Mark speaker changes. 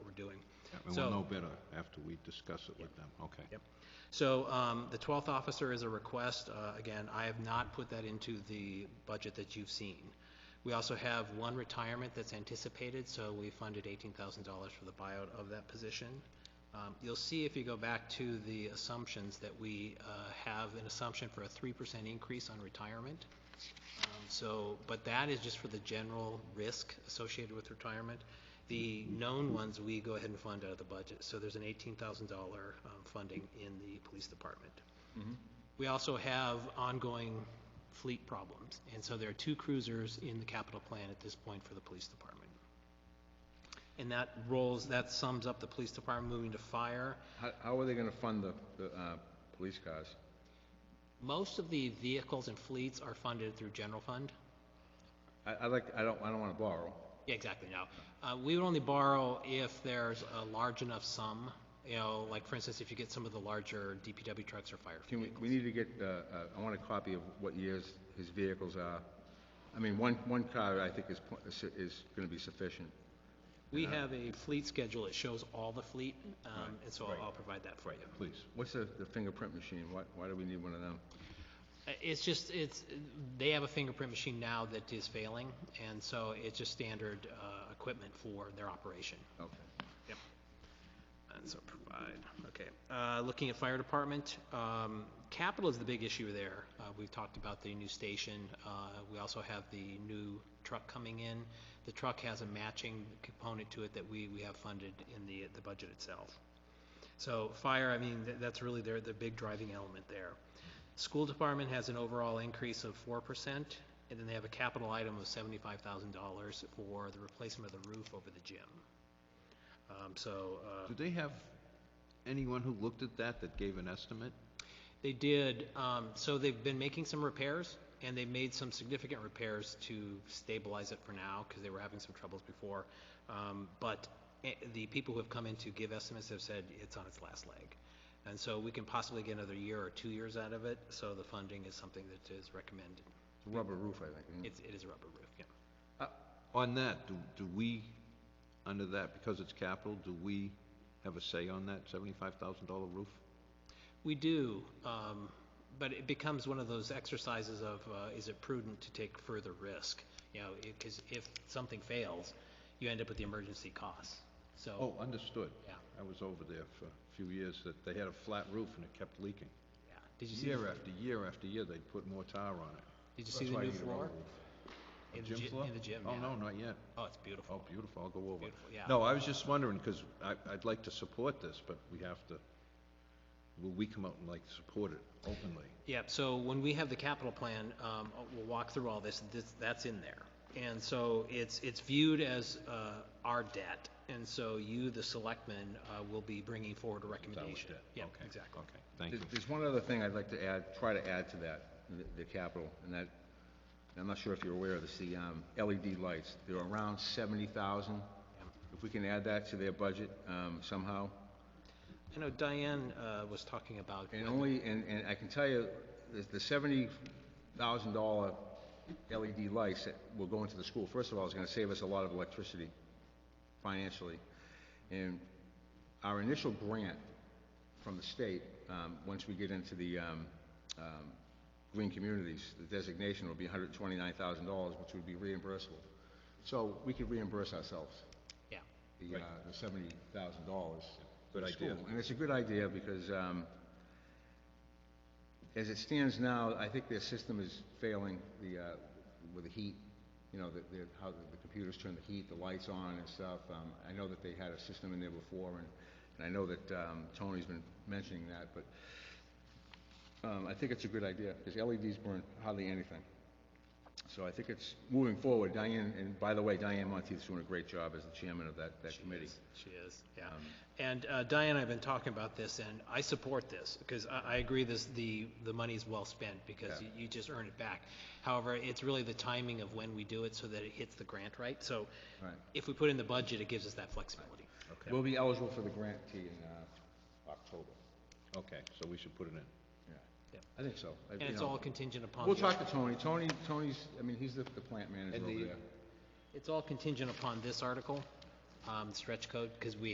Speaker 1: And
Speaker 2: So-
Speaker 1: we'll know better after we discuss it with them, okay?
Speaker 2: Yep. So um, the 12th officer is a request. Uh, Again, I have not put that into the budget that you've seen. We also have one retirement that's anticipated, so we funded $18,000 for the buyout of that position. Um, You'll see if you go back to the assumptions that we uh, have an assumption for a 3% increase on retirement. Um, So, but that is just for the general risk associated with retirement. The known ones, we go ahead and fund out of the budget. So there's an $18,000 um, funding in the police department. We also have ongoing fleet problems. And so there are two cruisers in the capital plan at this point for the police department. And that rolls, that sums up the police department moving to fire.
Speaker 3: How, how are they gonna fund the, the, uh, police cars?
Speaker 2: Most of the vehicles and fleets are funded through general fund.
Speaker 3: I, I like, I don't, I don't wanna borrow.
Speaker 2: Yeah, exactly, no. Uh, we would only borrow if there's a large enough sum, you know, like for instance, if you get some of the larger DPW trucks or fire.
Speaker 3: Can we, we need to get, uh, uh, I want a copy of what years his vehicles are. I mean, one, one car I think is, po- is, is gonna be sufficient.
Speaker 2: We have a fleet schedule, it shows all the fleet, um, and so I'll- I'll provide that for you.
Speaker 1: Please.
Speaker 3: What's the, the fingerprint machine? Why, why do we need one of them?
Speaker 2: Uh, It's just, it's, they have a fingerprint machine now that is failing, and so it's just standard, uh, equipment for their operation.
Speaker 3: Okay.
Speaker 2: Yep. And so provide, okay. Uh, Looking at fire department, um, capital is the big issue there. Uh, We've talked about the new station. Uh, We also have the new truck coming in. The truck has a matching component to it that we, we have funded in the, the budget itself. So fire, I mean, th- that's really their, the big driving element there. School department has an overall increase of four percent, and then they have a capital item of seventy-five thousand dollars for the replacement of the roof over the gym. Um, so, uh,
Speaker 1: Do they have anyone who looked at that that gave an estimate?
Speaker 2: they did, um, so they've been making some repairs, and they made some significant repairs to stabilize it for now, because they were having some troubles before. Um, but eh, the people who have come in to give estimates have said it's on its last leg. And so we can possibly get another year or two years out of it, so the funding is something that is recommended.
Speaker 3: It's a rubber roof, I think. isn't it?
Speaker 2: It's, it is a rubber roof, yeah.
Speaker 1: On that, do, do we, under that, because it's capital, do we have a say on that seventy-five thousand dollar roof?
Speaker 2: We do, um, but it becomes one of those exercises of, uh, is it prudent to take further risk? You know, because if something fails, you end up with the emergency costs. So,
Speaker 1: Oh, understood.
Speaker 2: Yeah.
Speaker 1: I was over there for a few years that they had a flat roof and it kept leaking.
Speaker 2: yeah. Did you see,
Speaker 1: Year
Speaker 2: did
Speaker 1: after year after year, they'd put more tar on it.
Speaker 2: you see
Speaker 3: That's
Speaker 2: the
Speaker 3: why you
Speaker 2: new
Speaker 3: need a
Speaker 2: floor?
Speaker 3: rubber roof.
Speaker 2: In the
Speaker 1: Gym
Speaker 2: gy-
Speaker 1: floor?
Speaker 2: In the gym,
Speaker 1: Oh,
Speaker 2: yeah.
Speaker 1: no, not yet.
Speaker 2: Oh, it's
Speaker 1: Oh,
Speaker 2: beautiful.
Speaker 1: beautiful, I'll go over.
Speaker 2: Beautiful, yeah.
Speaker 1: No, I was just wondering, because I, I'd like to support this, but we have to, will we come out and like support it openly?
Speaker 2: Yep, so when we have the capital plan, um, we'll walk through all this, this, that's in there. And so it's, it's viewed as, uh, our debt, and so you, the selectmen, uh, will be bringing forward a recommendation.
Speaker 1: debt,
Speaker 2: Yeah,
Speaker 1: okay,
Speaker 2: exactly.
Speaker 1: Okay, thank you.
Speaker 3: There's, there's one other thing I'd like to add, try to add to that, the, the capital, and that, I'm not sure if you're aware of this, the, um, LED lights, they're around seventy thousand. If we can add that to their budget, um, somehow,
Speaker 2: I know Diane, uh, was talking about.
Speaker 3: and only, and, and I can tell you, the, the seventy thousand dollar LED lights that will go into the school, first of all, is gonna save us a lot of electricity financially. And our initial grant from the state, um, once we get into the, um, um, green communities, the designation will be hundred and twenty-nine thousand dollars, which would be reimbursable. So we could reimburse ourselves
Speaker 2: Yeah,
Speaker 3: the, uh, the seventy thousand dollars.
Speaker 1: Good idea.
Speaker 3: And it's a good idea because, um, as it stands now, I think their system is failing, the, uh, with the heat, you know, the, the, how the the computers turn the heat, the lights on and stuff. Um, I know that they had a system in there before and, and I know that, um, Tony's been mentioning that, but, um, I think it's a good idea because LEDs burn hardly anything. So I think it's moving forward. Diane, and by the way, Diane Monteith's doing a great job as the chairman of that, that committee. Um,
Speaker 2: she is, yeah. And uh, Diane, I've been talking about this, and I support this, because I, I agree this, the, the money's well spent, because
Speaker 3: Yeah.
Speaker 2: you- you just earn it back. However, it's really the timing of when we do it so that it hits the grant right, so
Speaker 3: Right.
Speaker 2: if we put in the budget, it gives us that flexibility.
Speaker 3: We'll be eligible for the grant too in uh, October.
Speaker 1: Okay, so we should put it in.
Speaker 3: Yeah.
Speaker 2: Yep.
Speaker 3: I think so. I-
Speaker 2: And
Speaker 3: you
Speaker 2: it's
Speaker 3: know,
Speaker 2: all contingent upon.
Speaker 3: We'll
Speaker 2: the-
Speaker 3: talk to Tony. Tony, Tony's, I mean, he's the the plant manager
Speaker 1: And
Speaker 3: over
Speaker 1: the-
Speaker 3: there.
Speaker 2: It's all contingent upon this article, um, stretch code, because we